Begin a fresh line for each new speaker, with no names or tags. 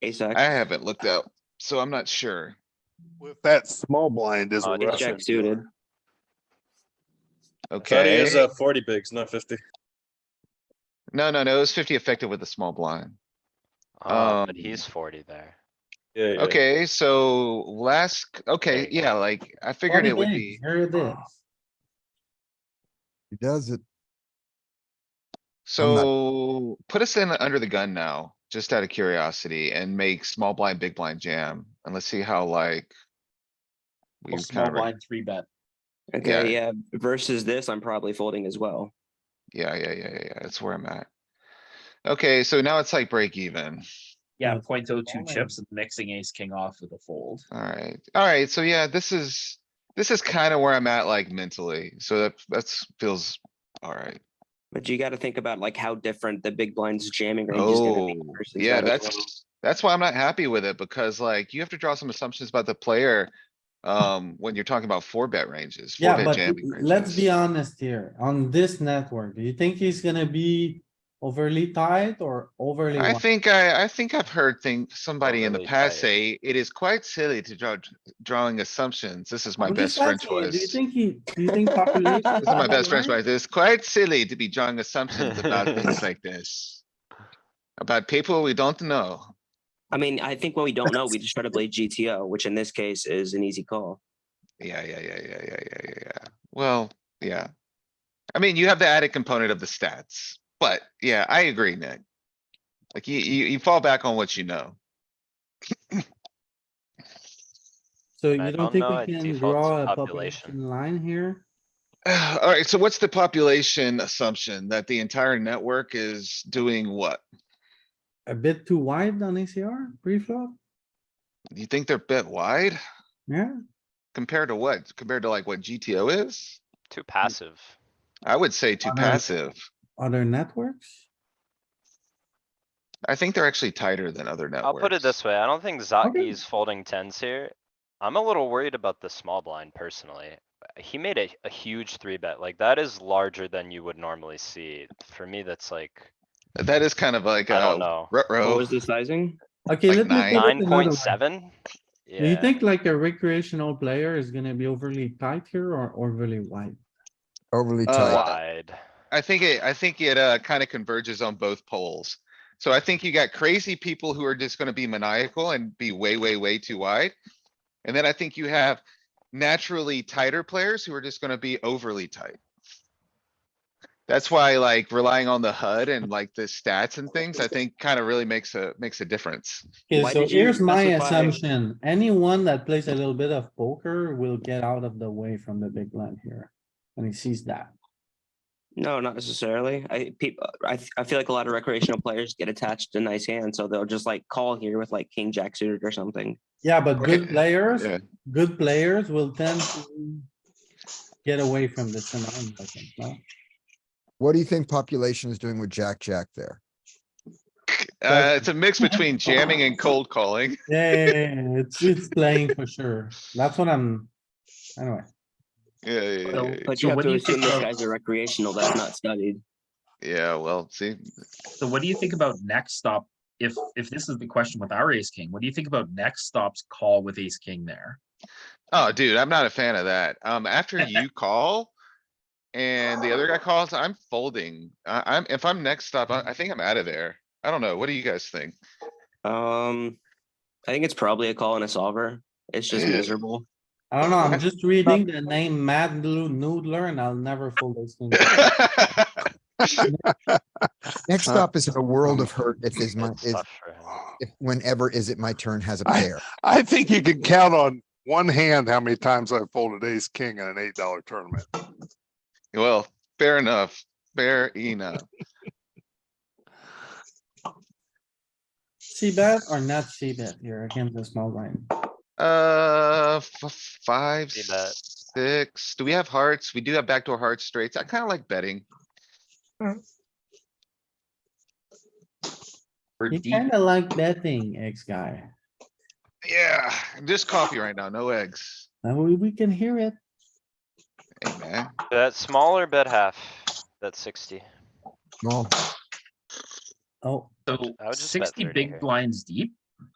ace X.
I haven't looked up, so I'm not sure.
With that small blind is a
Uh, ace
Russian.
jack suited.
Thought he was
Okay,
uh, forty bigs, not fifty.
no, no, no, it was fifty effective with a small blind.
Oh, but
Um,
he's forty there.
Yeah, yeah.
Okay, so last, c- okay,
There you go.
yeah, like I figured it would be,
Here it is.
He does it.
so put us in under the gun now, just out of curiosity and make small blind, big blind jam and let's see how like. We
Well, Small
kind of,
blind three bet.
Okay.
Okay, yeah, versus this, I'm probably folding as well.
yeah, yeah, yeah, yeah, yeah, that's where I'm at. Okay, so now it's like break even.
Yeah, point oh two
All in.
chips and mixing ace king off with a fold.
Alright, alright, so yeah, this is, this is kinda where I'm at like mentally, so that, that's feels alright.
But you gotta think about like how different the big blind's jamming range is gonna
Oh,
be. versus
yeah,
that as well.
that's, that's why I'm not happy with it, because like you have to draw some assumptions about the player. Um, when you're talking about four bet ranges. four
Yeah,
bet
but
jamming
let's be
ranges.
honest here, on this network, do you think he's gonna be overly tight or overly?
I
wide?
think I, I think I've heard thing, somebody in the
Overly
past
tight.
say, it is quite silly to draw, drawing assumptions. This is my
I'm
best
just
friend
asking you,
choice.
Do you
This
think he, do you think population?
This
is my best friend choice. It's quite silly to be drawing assumptions about things like this. About people we don't know.
I mean, I think what we don't know, we just try to play GTO, which in this case is an easy call.
Yeah, yeah, yeah, yeah, yeah, yeah, yeah, yeah. Well, yeah. I mean, you have the added component of the stats, but yeah, I agree, Nick. Like you, you, you fall back on what you know.
So
I
you don't
don't
think
know,
we
it
can
defaults
draw
to
a
population.
population line here?
Alright, so what's the population assumption? That the entire network is doing what?
A bit too wide on ACR, pre-flop?
You think they're bit wide
Yeah,
compared to what? Compared to like what GTO is?
Too passive.
I would say too
Uh,
passive.
other networks?
I think they're actually tighter than other networks.
I'll put it this way, I don't think
Okay.
Zaki's folding tens here. I'm a little worried about the small blind personally. He made a, a huge three bet, like that is larger than you would normally see. For me, that's like,
That is kind of like uh,
I don't
a
know,
Oh.
What
ruh-roh.
was the sizing?
Okay,
Like
let me.
nine.
put it
nine
another
point
way.
seven?
Do you
Yeah,
think like a recreational player is gonna be overly tight here or overly wide?
Overly
Uh,
tight.
wide.
I think it, I think it, uh, kind of converges on both poles. So I think you got crazy people who are just gonna be maniacal and be way, way, way too wide. And then I think you have naturally tighter players who are just gonna be overly tight. That's why like relying on the HUD and like the stats and things, I think kind of really makes a, makes a difference.
Okay,
Why
so
did you
here's my
specify-
assumption. Anyone that plays a little bit of poker will get out of the way from the big blind here. And he sees that.
No, not necessarily. I people, I th- I feel like a lot of recreational players get attached to nice hands, so they'll just like call here with like king jack suited or something.
Yeah, but good
Okay,
players,
yeah.
good players will tend to get away from this amount, I think, no?
What do you think population is doing with Jack Jack there?
Uh, it's a mix between jamming and cold calling.
Yeah, yeah, yeah, yeah, it's, it's playing for sure. That's what I'm, anyway.
Yeah, yeah, yeah, yeah, yeah.
But you have
what do
to
you think
assume this
of-
guy's a recreational that's not studied.
yeah, well, see,
So what do you think about next stop? If, if this is the question with our ace king, what do you think about next stop's call with ace king there?
Oh, dude, I'm not a fan of that. Um, after you call. And the other guy calls, I'm folding. I, I'm, if I'm next stop, I, I think I'm out of there. I don't know. What do you guys think?
Um, I think it's probably a call and a solver. It's just
Yeah.
miserable.
I don't know, I'm just reading the name Mad Blue Noodler and I'll never fold those things.
Next
Huh?
up is in a world of hurt if is my,
It's
if,
tough for him.
if whenever is it my turn has a
I-
pair.
I think you can count on one hand how many times I've folded ace king in an eight dollar tournament.
Well, fair enough. Fair enough.
See bet or not see bet here against the small line?
Uh, f- five,
See bet.
six. Do we have hearts? We do have backdoor hearts, straights. I kinda like betting.
Or
You
deep?
kinda like betting, ex-guy.
Yeah, just coffee right now, no eggs.
Now we, we can hear it.
Hey, man.
That smaller bet half, that's sixty.
Well,
Oh,
So
I would just bet
sixty
30
big
here.
blinds deep?